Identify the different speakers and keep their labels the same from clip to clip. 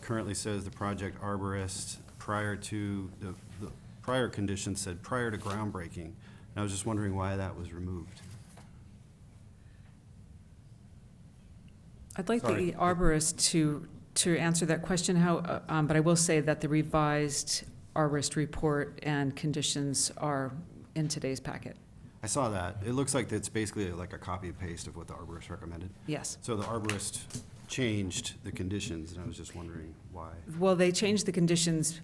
Speaker 1: currently says the project arborist prior to, the, the prior condition said prior to groundbreaking. And I was just wondering why that was removed.
Speaker 2: I'd like
Speaker 1: Sorry.
Speaker 2: the arborist to, to answer that question, how, uh, um, but I will say that the revised arborist report and conditions are in today's packet.
Speaker 1: I saw that. It looks like it's basically like a copy and paste of what the arborist recommended.
Speaker 2: Yes.
Speaker 1: So the arborist changed the conditions, and I was just wondering why.
Speaker 2: Well, they changed the conditions,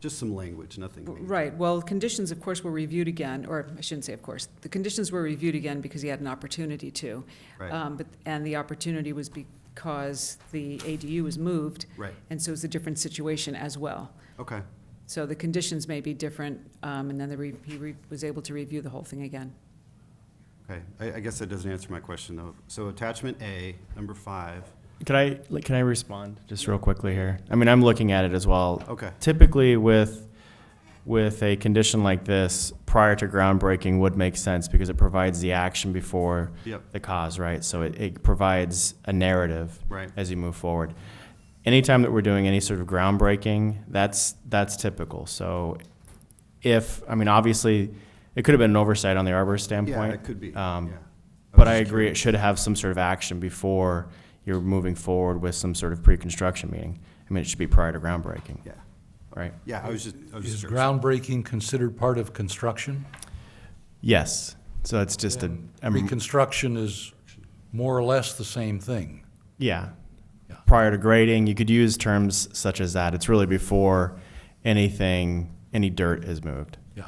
Speaker 1: Just some language, nothing major.
Speaker 2: right, well, conditions, of course, were reviewed again, or I shouldn't say of course. The conditions were reviewed again because he had an opportunity to.
Speaker 1: Right,
Speaker 2: Um, but, and the opportunity was because the ADU was moved,
Speaker 1: right,
Speaker 2: and so it's a different situation as well.
Speaker 1: okay.
Speaker 2: So the conditions may be different, um, and then the, re- he re- was able to review the whole thing again.
Speaker 1: Okay, I, I guess that doesn't answer my question, though. So attachment A, number five,
Speaker 3: Can I like, can I respond just real quickly here? I mean, I'm looking at it as well.
Speaker 1: okay,
Speaker 3: Typically, with with a condition like this, prior to groundbreaking would make sense because it provides the action before
Speaker 1: yep,
Speaker 3: the cause, right? So it, it provides a narrative
Speaker 1: right,
Speaker 3: as you move forward. Anytime that we're doing any sort of groundbreaking, that's that's typical. So if I mean, obviously, it could have been an oversight on the arborist
Speaker 1: yeah,
Speaker 3: standpoint.
Speaker 1: it could be, yeah.
Speaker 3: um,
Speaker 1: was
Speaker 3: But I
Speaker 1: just
Speaker 3: agree, it
Speaker 1: curious.
Speaker 3: should have some sort of action before you're moving forward with some sort of pre-construction meeting. I mean, it should be prior to groundbreaking,
Speaker 1: Yeah,
Speaker 3: right?
Speaker 1: yeah, I was just, I was just
Speaker 4: Is
Speaker 1: curious.
Speaker 4: groundbreaking considered part of construction?
Speaker 3: Yes, so it's just a, a-
Speaker 4: Reconstruction is more or less the same thing.
Speaker 3: yeah.
Speaker 4: Yeah.
Speaker 3: Prior to grading, you could use terms such as that. It's really before anything, any dirt is moved.
Speaker 4: Yeah.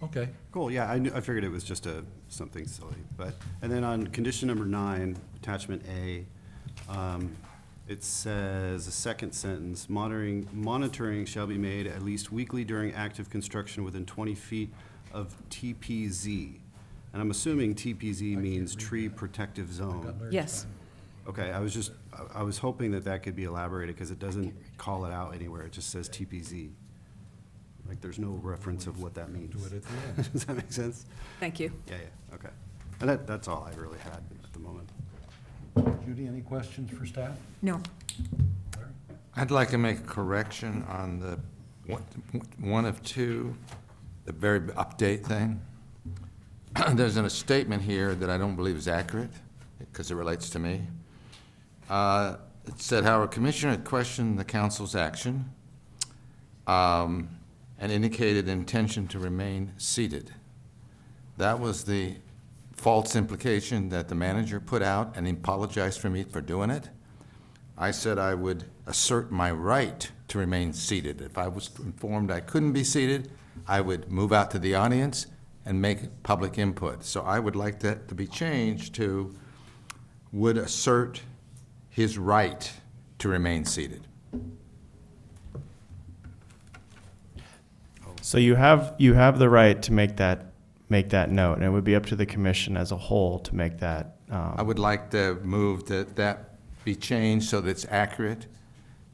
Speaker 4: Okay.
Speaker 1: Cool, yeah, I knew, I figured it was just a, something silly, but, and then on condition number nine, attachment A, um, it says, the second sentence, monitoring, monitoring shall be made at least weekly during active construction within twenty feet of TPZ. And I'm assuming TPZ means tree protective zone.
Speaker 2: Yes,
Speaker 1: Okay, I was just, I- I was hoping that that could be elaborated, because it doesn't call it out anywhere, it just says TPZ. Like, there's no reference of what that means.
Speaker 4: Do it at the end.
Speaker 1: Does that make sense?
Speaker 2: thank you.
Speaker 1: Yeah, yeah, okay. And that, that's all I really had at the moment.
Speaker 4: Judy, any questions for staff?
Speaker 2: No.
Speaker 5: I'd like to make a correction on the one- one of two, the very update thing. There's a statement here that I don't believe is accurate, because it relates to me. Uh, It said, "Howard Commissioner questioned the council's action um, and indicated intention to remain seated." That was the false implication that the manager put out, and he apologized for me for doing it. I said I would assert my right to remain seated. If I was informed I couldn't be seated, I would move out to the audience and make public input. So I would like that to be changed to would assert his right to remain seated.
Speaker 3: So you have, you have the right to make that, make that note, and it would be up to the commission as a whole to make that, um,
Speaker 5: I would like to move that that be changed so that it's accurate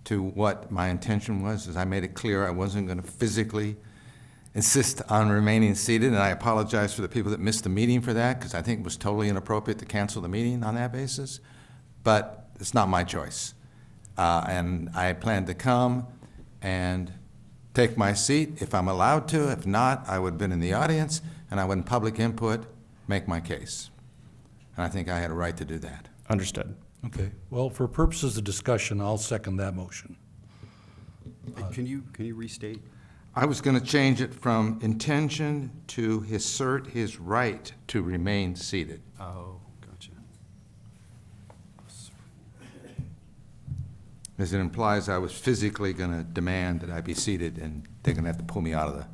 Speaker 5: to what my intention was, as I made it clear I wasn't going to physically insist on remaining seated, and I apologize for the people that missed the meeting for that, because I think it was totally inappropriate to cancel the meeting on that basis, but it's not my choice. Uh, And I plan to come and take my seat if I'm allowed to. If not, I would have been in the audience, and I would, in public input, make my case. And I think I had a right to do that.
Speaker 3: understood.
Speaker 4: Okay. Well, for purposes of discussion, I'll second that motion.
Speaker 1: Can you, can you restate?
Speaker 5: I was going to change it from intention to assert his right to remain seated.
Speaker 1: Oh, gotcha.
Speaker 5: As it implies I was physically going to demand that I be seated, and they're going to have to pull me out of the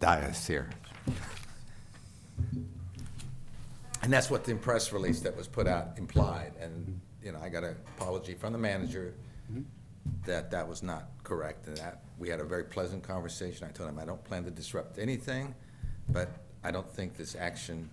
Speaker 5: dais here. And that's what the press release that was put out implied, and, you know, I got an apology from the manager that that was not correct, and that, we had a very pleasant conversation. I told him I don't plan to disrupt anything, but I don't think this action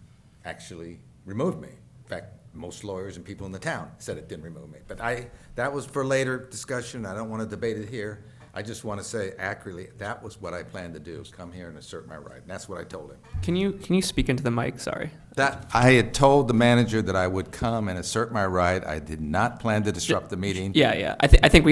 Speaker 5: actually removed me. In fact, most lawyers and people in the town said it didn't remove me, but I, that was for later discussion, I don't want to debate it here. I just want to say accurately, that was what I planned to do, is come here and assert my right, and that's what I told him.
Speaker 6: Can you can you speak into the mic? Sorry.
Speaker 5: That, I had told the manager that I would come and assert my right. I did not plan to disrupt the meeting.
Speaker 6: Yeah, yeah. I, th- I think we